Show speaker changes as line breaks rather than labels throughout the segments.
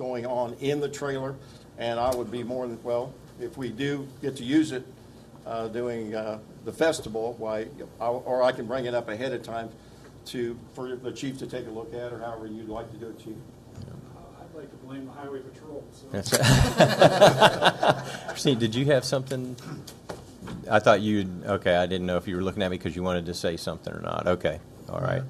going on in the trailer, and I would be more than, well, if we do get to use it uh, doing uh, the festival, why, I- or I can bring it up ahead of time to, for the chief to take a look at, or however you'd like to do it, chief.
I'd like to blame the highway patrol, so.
That's Christine, did you have something? I thought you, okay, I didn't know if you were looking at me because you wanted to say something or not. Okay, all right.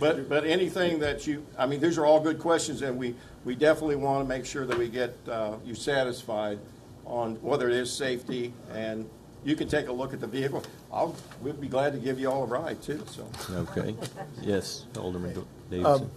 But, but anything that you, I mean, these are all good questions, and we, we definitely want to make sure that we get uh, you satisfied on whether it is safety, and you can take a look at the vehicle. I'll, we'd be glad to give you all a ride, too, so.
Okay, yes, Alderman
Um,
Davidson.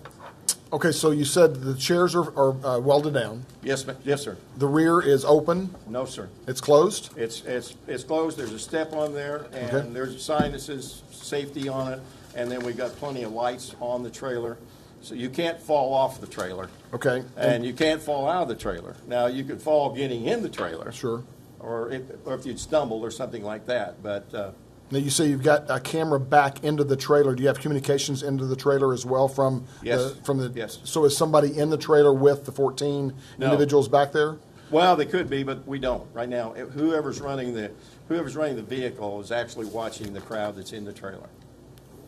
Okay, so you said the chairs are, are uh, welded down.
Yes, ma- yes, sir.
The rear is open.
No, sir.
It's closed.
It's, it's, it's closed, there's a step on there,
Okay.
and there's a sign that says safety on it, and then we got plenty of lights on the trailer. So you can't fall off the trailer,
Okay.
and you can't fall out of the trailer. Now, you could fall getting in the trailer.
Sure.
Or if, or if you'd stumbled or something like that, but, uh,
Now you say you've got a camera back into the trailer. Do you have communications into the trailer as well from
Yes.
the, from the?
Yes.
So is somebody in the trailer with the 14
No.
individuals back there?
well, they could be, but we don't right now. Whoever's running the, whoever's running the vehicle is actually watching the crowd that's in the trailer.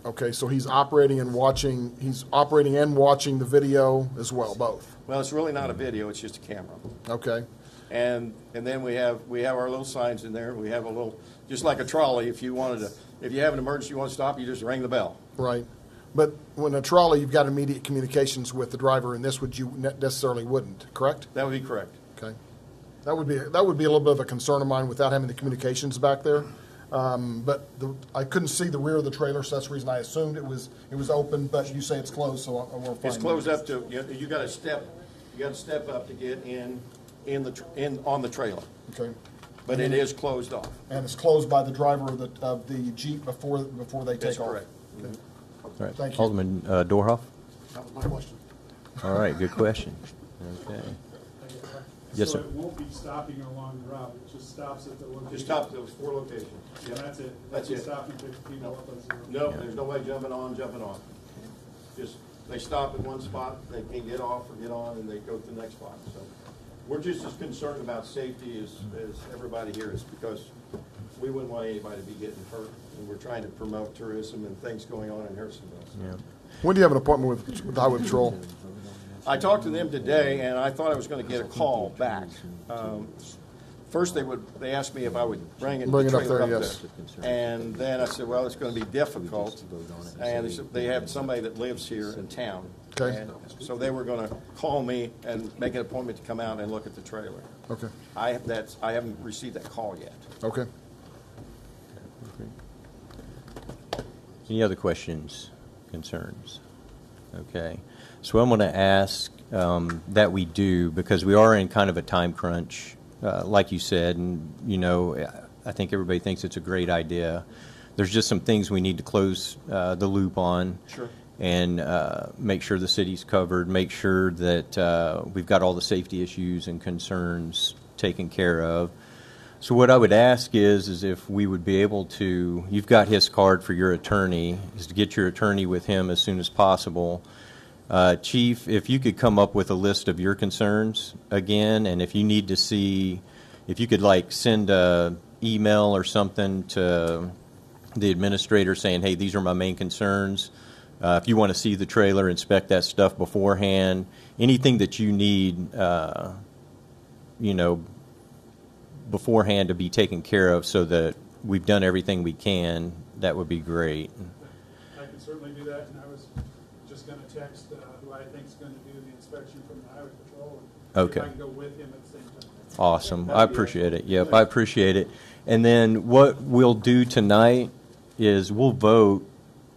Okay, so he's operating and watching. He's operating and watching the video as well, both.
Well, it's really not a video, it's just a camera.
Okay.
And, and then we have, we have our little signs in there, we have a little, just like a trolley, if you wanted to, if you have an emergency, you want to stop, you just ring the bell.
Right. But when a trolley, you've got immediate communications with the driver, and this would you ne- necessarily wouldn't, correct?
That would be correct.
Okay. That would be, that would be a little bit of a concern of mine without having the communications back there. Um, But the, I couldn't see the rear of the trailer, so that's the reason I assumed it was, it was open, but you say it's closed, so I- I won't find.
It's closed up to, you, you gotta step, you gotta step up to get in, in the, tr- in, on the trailer,
Okay.
but it is closed off.
And it's closed by the driver of the, of the Jeep before, before they
That's
take off.
correct.
All right,
thank you.
Alderman uh, Dorhoff?
That was my question.
All right, good question. Okay. Yes,
So
sir.
it won't be stopping along the route, it just stops at the location.
Just stop those four locations.
And that's it.
That's
Just
it.
Stop and pick people up as they-
No, there's no way jumping on, jumping off. Just, they stop at one spot, they can get off or get on, and they go to the next spot, so. We're just as concerned about safety as, as everybody here is, because we wouldn't want anybody to be getting hurt, and we're trying to promote tourism and things going on in Harrisonville. so.
Yeah.
When do you have an appointment with, with the Highway Patrol?
I talked to them today, and I thought I was gonna get a call back. Um, First, they would, they asked me if I would bring it,
Bring it up
trailer
there, yes.
And then I said, well, it's gonna be difficult, and they said they have somebody that lives here in town.
Okay.
And So they were gonna call me and make an appointment to come out and look at the trailer.
Okay,
I have that, I haven't received that call yet.
okay.
Any other questions, concerns? Okay. So I'm going to ask um, that we do, because we are in kind of a time crunch, uh, like you said, and, you know, I think everybody thinks it's a great idea. There's just some things we need to close uh, the loop on.
Sure.
And uh, make sure the city's covered, make sure that uh, we've got all the safety issues and concerns taken care of. So what I would ask is, is if we would be able to, you've got his card for your attorney, is to get your attorney with him as soon as possible. Uh, Chief, if you could come up with a list of your concerns again, and if you need to see, if you could like send a email or something to the administrator saying, hey, these are my main concerns. Uh, if you want to see the trailer, inspect that stuff beforehand. Anything that you need, uh, you know, beforehand to be taken care of so that we've done everything we can, that would be great.
I can certainly do that, and I was just gonna text uh, who I think's gonna do the inspection from the highway patrol. and see
Okay.
If I can go with him at the same time.
Awesome. I appreciate it. Yep, I appreciate it. And then what we'll do tonight is we'll vote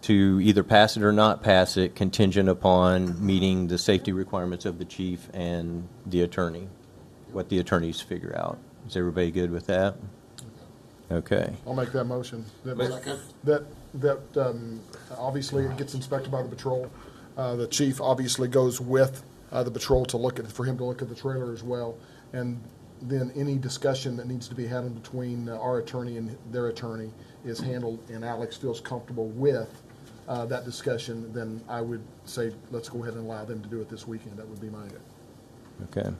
to either pass it or not pass it contingent upon meeting the safety requirements of the chief and the attorney, what the attorneys figure out. Is everybody good with that? Okay.
I'll make that motion. That, that, that, um, obviously it gets inspected by the patrol. Uh, the chief obviously goes with, uh, the patrol to look at, for him to look at the trailer as well. And then any discussion that needs to be had in between uh, our attorney and their attorney is handled and Alex feels comfortable with, uh, that discussion, then I would say, let's go ahead and allow them to do it this weekend. That would be my
Okay.